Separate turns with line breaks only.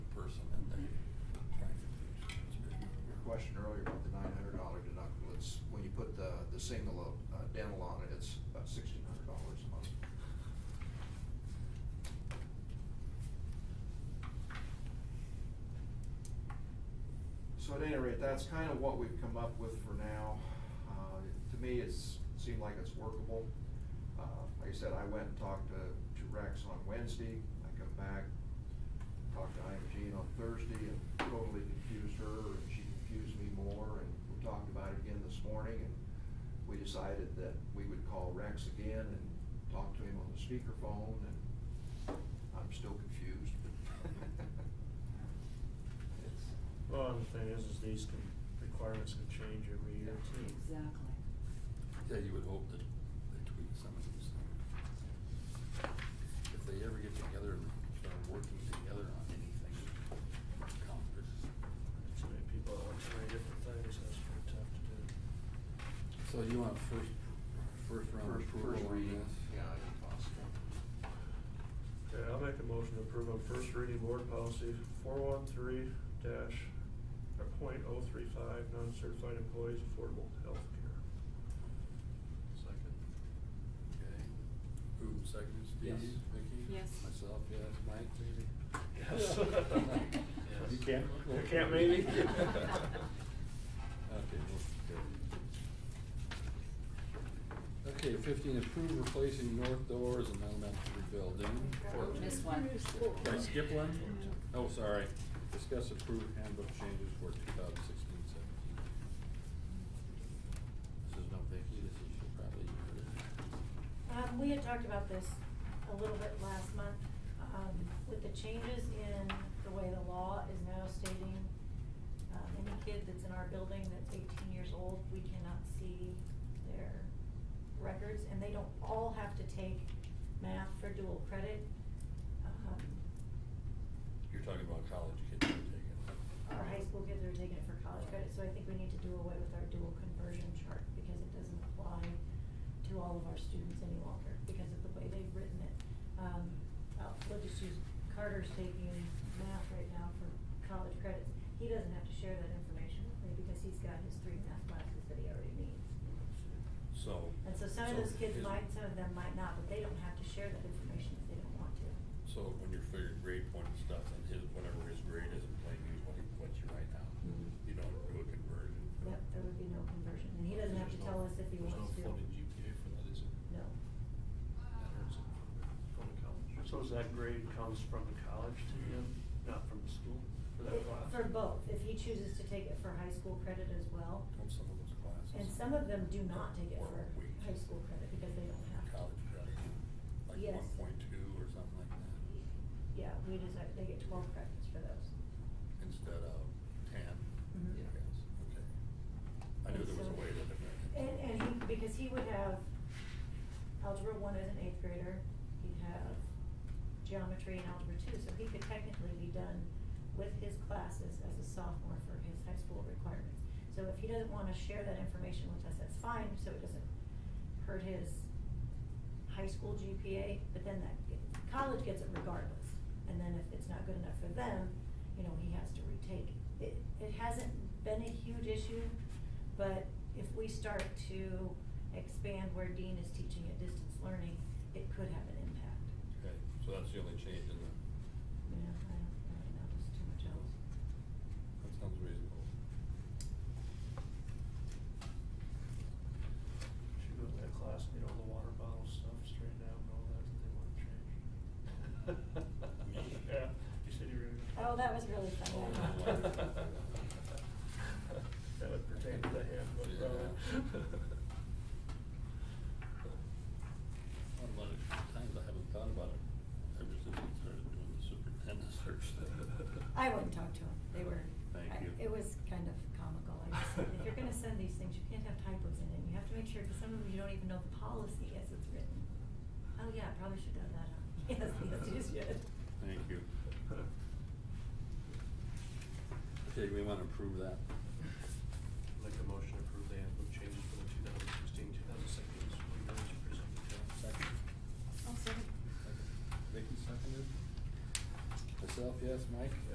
uh, So at any rate, that's kind of what we've come up with for now. Uh, To me, it's, seemed like it's workable. Uh, Like I said, I went and talked to, to Rex on Wednesday, I come back, talked to IMG on Thursday and totally confused her, and she confused me more, and we talked about it again this morning, and we decided that we would call Rex again and talk to him on the speakerphone, and I'm still confused. It's-
Well, and the thing is, is these can, requirements can change every year too.
Exactly.
Yeah, you would hope that they tweak some of these things. If they ever get together and start working together on anything, Congress.
Too many people that want too many different things, that's pretty tough to do.
So you want first, first round
First, first
approval on
reading,
this?
yeah, if possible.
Okay, I'll make a motion to approve on first reading board policy four one three dash, or point oh three five, non-certified employees affordable health care.
Second. Okay. Who seconded? Steve?
Yes.
Vicky?
Yes.
Myself, yes. Mike? Maybe?
Yes.
Yes.
You can't, you can't maybe?
Okay, motion carried. Okay, fifteen, approve replacing north doors in elementary building.
Oh, Missed one.
Did I skip one? Oh, sorry. Discuss approved handbook changes for 2016-17. This is no Vicky, this is probably you.
Um, we had talked about this a little bit last month, um, with the changes in the way the law is now stating, um, any kid that's in our building that's eighteen years old, we cannot see their records, and they don't all have to take math for dual credit. Um,
You're talking about college kids who are taking it.
our high school kids are taking it for college credit, so I think we need to do away with our dual conversion chart, because it doesn't apply to all of our students any longer, because of the way they've written it. Um, I'll- we'll just use, Carter's taking math right now for college credits, he doesn't have to share that information with me, because he's got his three math classes that he already needs.
So.
And so some of those kids
is-
might, some of them might not, but they don't have to share that information if they don't want to.
So when you're figuring grade point and stuff, and his, whatever his grade is in plain use, what he, what you write down,
Mhm.
you don't do a conversion.
Yep, there would be no conversion, and he doesn't have to
There's no-
tell us if he wants to.
There's no floating GPA for that, is it?
No.
That hurts it. Going to college.
So is that grade comes from the college to him, not from the school, for that
It-
class?
For both, if he chooses to take it for high school credit as well,
On some of those classes.
and some of them do not take it
Or
for
we-
high school credit because they don't have to.
College credit, like
Yes.
one point two or something like that.
Yeah, we decide, they get twelve credits for those.
instead of ten.
Mhm.
I guess. Okay. I knew there was a way to it.
And, and he, because he would have algebra one as an eighth grader, he'd have geometry and algebra two, so he could technically be done with his classes as a sophomore for his high school requirements. So if he doesn't wanna share that information with us, that's fine, so it doesn't hurt his high school GPA, but then that, college gets it regardless. And then if it's not good enough for them, you know, he has to retake it. It, it hasn't been a huge issue, but if we start to expand where Dean is teaching at distance learning, it could have an impact.
Okay, so that's the only change in the,
You know, I don't really notice too much else.
that sounds reasonable.
Should go to that class and get all the water bottle stuff straightened out and all that that they wanna change. Yeah, you said you were gonna.
Oh, that was really funny.
That would pertain to the handbook, probably.
Thought about it a few times, I haven't thought about it ever since we started doing the superintendent search thing.
I wouldn't talk to them, they were,
Thank
I-
you.
it was kind of comical, I just said, if you're gonna send these things, you can't have typos in it, you have to make sure, cause some of them you don't even know the policy as it's written. Oh yeah, I probably should have done that, huh? Yes, yes, you should.
Thank you. Okay, we wanna approve that.
Make a motion to approve the handbook changes for the 2016-2017 school year as presented.
Second.
I'll second.
Vicky seconded. Myself, yes, Mike?